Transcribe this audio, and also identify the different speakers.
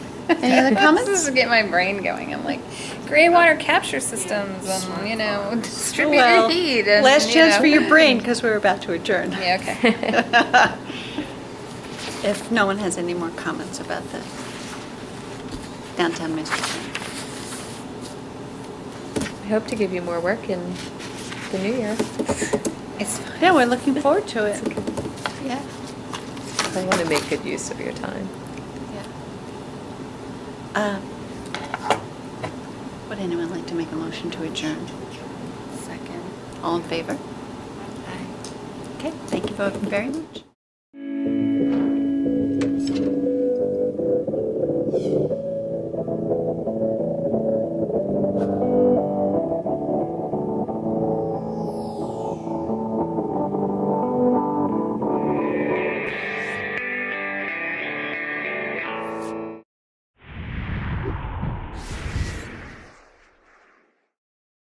Speaker 1: Any other
Speaker 2: This
Speaker 1: comments?
Speaker 2: is getting my brain going. I'm like, gray water capture systems and, you know, distributed heat and,
Speaker 1: Last
Speaker 2: you
Speaker 1: chance
Speaker 2: know.
Speaker 1: for your brain, because we're about to adjourn.
Speaker 2: Yeah, okay.
Speaker 1: If no one has any more comments about the downtown master plan.
Speaker 3: I hope to give you more work in the new year.
Speaker 2: It's fine.
Speaker 1: Yeah, we're looking forward to it. Yeah.
Speaker 3: I want to make good use of your time.
Speaker 1: yeah. Uh, Would anyone like to make a motion to adjourn?
Speaker 2: Second.
Speaker 1: All in favor? Okay, thank you both very much.